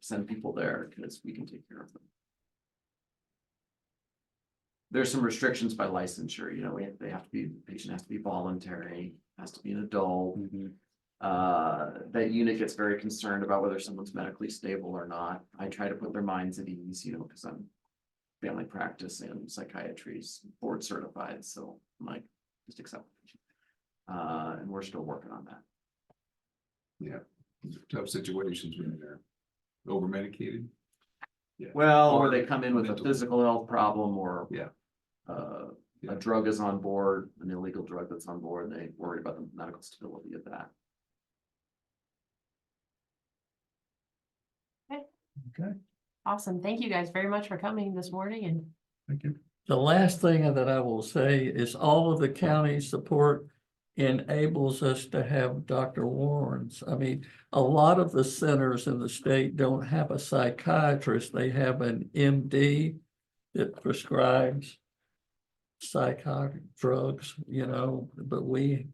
send people there because we can take care of them. There's some restrictions by licensure, you know, we have, they have to be, the patient has to be voluntary, has to be an adult. Mm-hmm. Uh, that unit gets very concerned about whether someone's medically stable or not. I try to put their minds at ease, you know, because I'm family practice and psychiatry is board certified, so I'm like, just accept. it. Uh, and we're still working on that. tough situations when they're over medicated. Well, or Or they come in with a mental. physical health problem or. Yeah. Uh, Yeah. a drug is on board, an illegal drug that's on board, and they worry about the medical stability of that. Okay, Awesome. Thank you guys very much for coming this morning and thank you. The last thing that I will say is all of the county's support enables us to have Dr. Warrens. I mean, a lot of the centers in the state don't have a psychiatrist. They have an MD that prescribes psychotic drugs, you know, but we,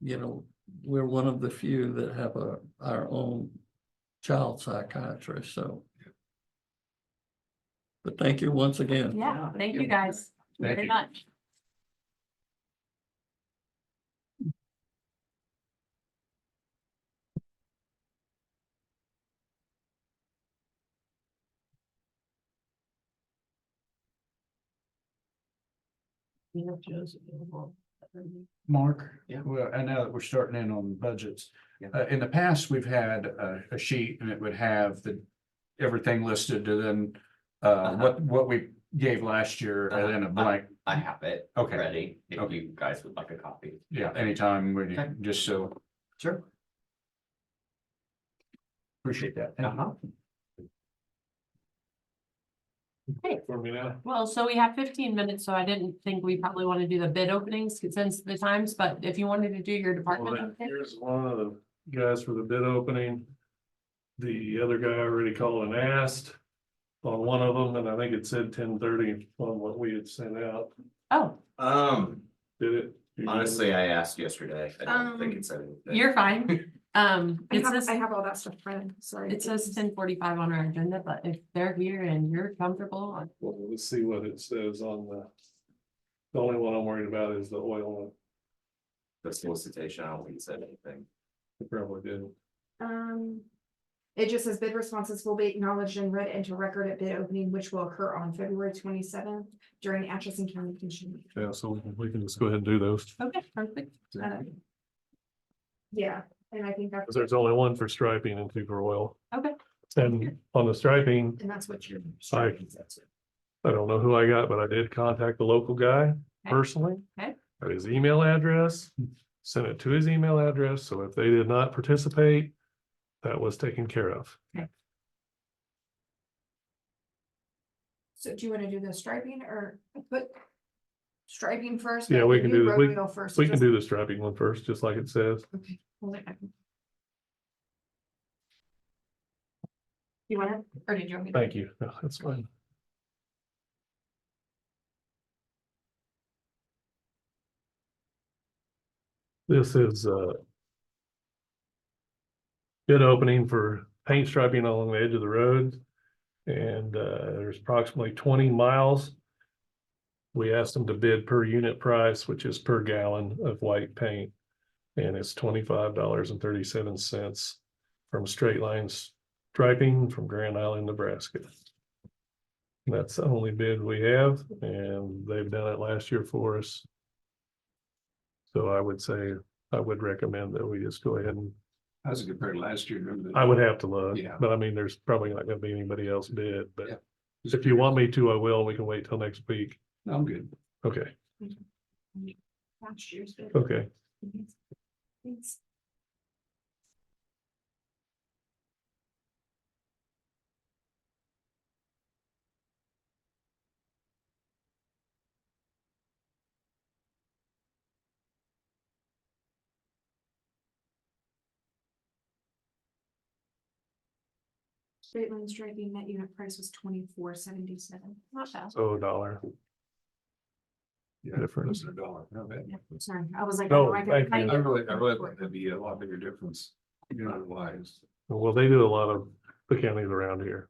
you know, we're one of the few that have a, our own child psychiatrist, so. But thank you once again. Yeah, yeah, thank thank you. you guys Thank very you. much. Mark? Yeah. Well, and now that we're starting in on budgets, Yeah. uh, in the past, we've had a, a sheet and it would have the, everything listed and then, uh, Uh-huh. what, what we gave last year and then a Uh-huh. blank, I have it Okay. ready, if Okay. you guys would like a copy. yeah, anytime, when you, Okay. just so, Sure. appreciate that. Thank you. Uh-huh. Well, so we have fifteen minutes, so I didn't think we probably want to do the bid openings since the times, but if you wanted to do your Well, department. then, update- Here's one of the guys for the bid opening. The other guy already called and asked on one of them, and I think it said ten thirty on what we had sent out. Oh, Um, Did it? honestly, I asked yesterday, I don't think Um, it's anything. you're fine. Um, I it have, says, I have all that stuff printed, sorry. it says ten forty-five on our agenda, but if they're here and you're comfortable, I- Well, let's see what it says on the. The only one I'm worried about is the oil, The solicitation, I don't think it said anything. it probably didn't. Um, it just says bid responses will be acknowledged and read into record at bid opening, which will occur on February twenty-seventh during Atchison County Commission. meeting. Yeah, so we can just go ahead and do those, okay, perfect. Uh, Um, Yeah, and I think that's, because there's only one for striping and two for oil. Okay. And on the striping, and that's what you're. Sorry. I don't know who I got, but I did contact the local guy Okay. personally. Okay. At his email address, sent it to his email address, so if they did not participate, that was taken care of. So do you wanna do the striping or put striping first? Yeah, and we can do the- road we- wheel First. We can just- do the striping one first, just like it says. Okay, hold it. You wanna, or did you want me? to? Thank you. No, That's fine. This is uh bid opening for paint striping along the edge of the road. And uh, there's approximately twenty miles. We asked them to bid per unit price, which is per gallon of white paint. And it's twenty-five dollars and thirty-seven cents from Straight Lines striping from Grand Island, Nebraska. That's the only bid we have, and they've done it last year for us. So I would say, I would recommend that we just go ahead and, That was a good pair last year. remember that? I would have to look, Yeah. but I mean, there's probably not gonna be anybody else bid, Yeah. but if you want me to, I will, we can wait till next week. I'm good. Okay, Last year's bid. okay. Thanks. Straight line striking net unit price was twenty-four seventy-seven. Not bad. So a dollar. Yeah. Difference. Less than a dollar. No, that- Sorry, I was like. "Oh, No, I thank could- I you. could- I really, I really think that'd be a lot bigger difference, you know, lives. Well, they do a lot of the counties around here.